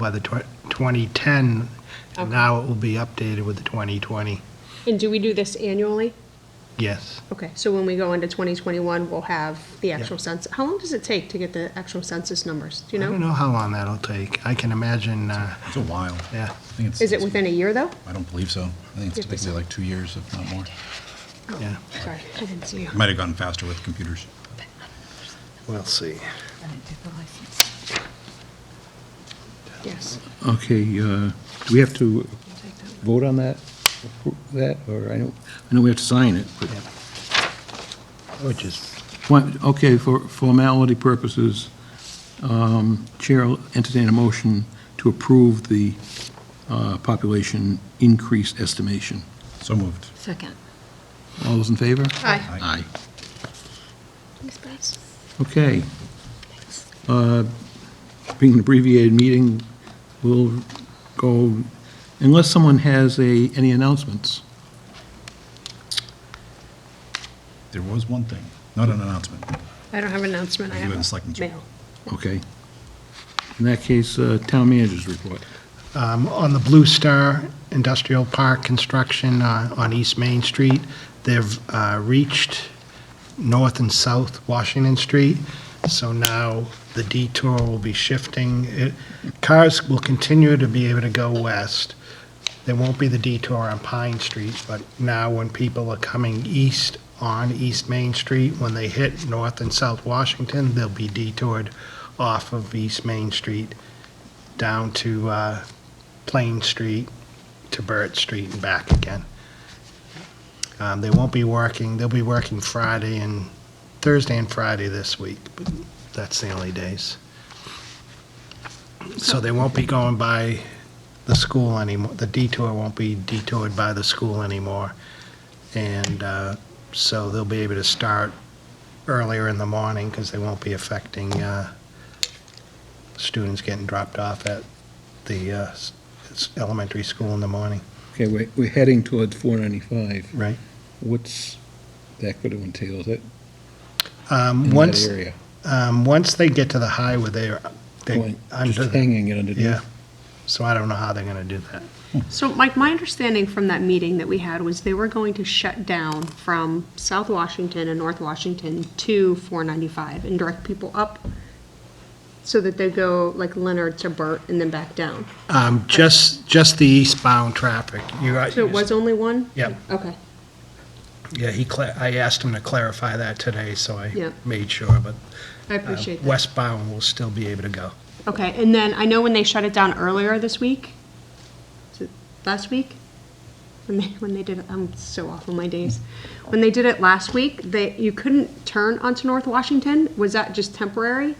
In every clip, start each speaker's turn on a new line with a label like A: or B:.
A: by the tw- 2010, and now it will be updated with the 2020,
B: And do we do this annually?
A: yes.
B: Okay, so when we go into 2021, we'll have the
A: Yeah.
B: actual census. How long does it take to get the actual census numbers? Do
A: I
B: you
A: don't
B: know?
A: know how long that'll take. I can imagine, uh,
C: It's a while.
A: yeah.
C: I think it's-
B: Is it within a year, though?
C: I don't believe so. I think it's typically like two years, if not more.
A: Yeah.
B: Oh, Sorry, I didn't see you.
C: It Might have gotten faster with computers.
A: We'll see.
B: Yes.
D: Okay, uh, do we have to vote on that, appro- that, or I know, I know we have to sign it, but,
A: Which is,
D: What- okay, for formality purposes, um, Chair will entertain a motion to approve the uh, population increase estimation.
C: So moved.
E: Second.
D: All those in favor?
B: Aye.
D: Aye.
E: Thanks, guys.
D: Okay. Uh, Being an abbreviated meeting, we'll go, unless someone has a, any announcements.
C: There was one thing, not an announcement.
B: I don't have an announcement. I
C: You
B: have
C: and
B: a
C: Selectmen's
B: mail.
D: Okay. In that case, uh, Town Manager's Report.
A: um, on the Blue Star Industrial Park construction uh, on East Main Street, they've uh, reached North and South Washington Street, so now the detour will be shifting. It- Cars will continue to be able to go west. There won't be the detour on Pine Street, but now when people are coming east on East Main Street, when they hit North and South Washington, they'll be detoured off of East Main Street down to uh, Plain Street to Burt Street and back again. Um, They won't be working, they'll be working Friday and, Thursday and Friday this week, but that's the only days. So they won't be going by the school anymore, the detour won't be detoured by the school anymore. And uh, so they'll be able to start earlier in the morning because they won't be affecting uh, students getting dropped off at the uh, s- s- elementary school in the morning.
D: Okay, we're, we're heading towards 495.
A: Right.
D: What's that going to entail, is it,
A: Um,
D: in
A: once,
D: that area?
A: um, once they get to the highway, they're, they're
D: Going-
A: under,
D: Just
A: the-
D: hanging it underneath?
A: yeah. So I don't know how they're going to do that.
B: So Mike, my understanding from that meeting that we had was they were going to shut down from South Washington and North Washington to 495 and direct people up so that they go like Leonard to Burt and then back down.
A: Um, just, just the eastbound traffic. You, I-
B: So it was only one?
A: Yep.
B: Okay,
A: Yeah, he, cla- I asked him to clarify that today, so I
B: Yeah.
A: made sure, but
B: I
A: uh,
B: appreciate that.
A: westbound will still be able to go.
B: Okay, and then I know when they shut it down earlier this week, was it last week? When they, when they did it, I'm so off on my days. When they did it last week, they, you couldn't turn onto North Washington? Was that just temporary?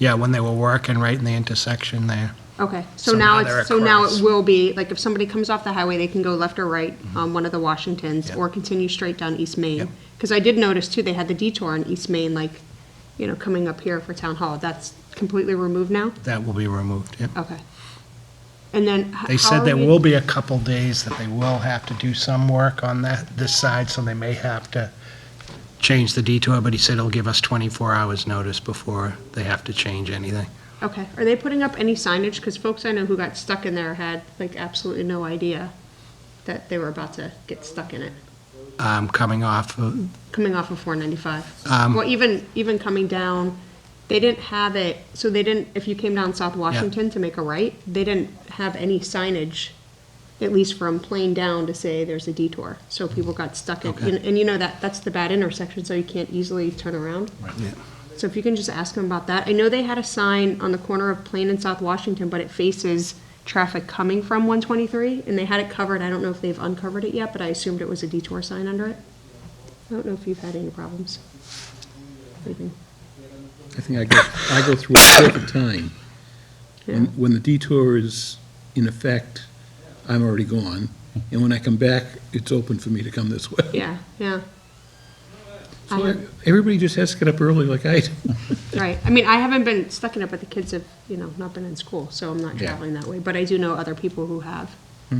A: Yeah, when they were working right in the intersection there.
B: Okay, so
A: So now
B: now
A: they're
B: it's, so now
A: across.
B: it will be, like, if somebody comes off the highway, they can go left or right on one of the Washingtons,
A: Yep.
B: or continue straight down East
A: Mm-hmm. Yep.
B: Main. Because I did notice too, they had the detour on East Main, like, you know, coming up here for Town Hall, that's completely removed now?
A: That will be removed, yep.
B: Okay. And then. h-
A: They
B: how
A: said
B: are
A: there
B: we-
A: will be a couple days that they will have to do some work on that, this side, so they may have to change the detour, but he said he'll give us 24 hours notice before they have to change anything.
B: Okay, are they putting up any signage? Because folks I know who got stuck in there had like absolutely no idea that they were about to get stuck in it,
A: Um, Coming off, of-
B: coming off of four ninety-five.
A: Um,
B: Well, even, even coming down, they didn't have it, so they didn't, if you came down South Washington to make a right, they didn't have any signage, at least from Plain down to say there's a detour, so people got stuck in,
A: Okay.
B: and- and you know that, that's the bad intersection, so you can't easily turn around. So if you can just ask them about that. I know they had a sign on the corner of Plain and South Washington, but it faces traffic coming from 123, and they had it covered. I don't know if they've uncovered it yet, but I assumed it was a detour sign under it. I don't know if you've had any problems. leaving.
D: I think I go, I go through it all the time. When, when the detour is in effect, I'm already gone, and when I come back, it's open for me to come this way.
B: Yeah, yeah, I
D: So
B: have-
D: everybody just has to get up early like I do.
B: right. I mean, I haven't been stuck in it, but the kids have, you know, not been in school, so I'm not
D: Yeah.
B: traveling that way. But I do know other people who have.
C: Are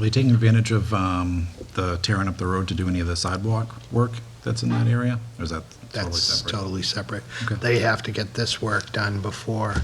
C: they taking advantage of um, the tearing up the road to do any of the sidewalk work? that's in that area? Or is that totally
A: That's
C: separate?
A: totally separate.
C: Okay.
A: They have to get this work done before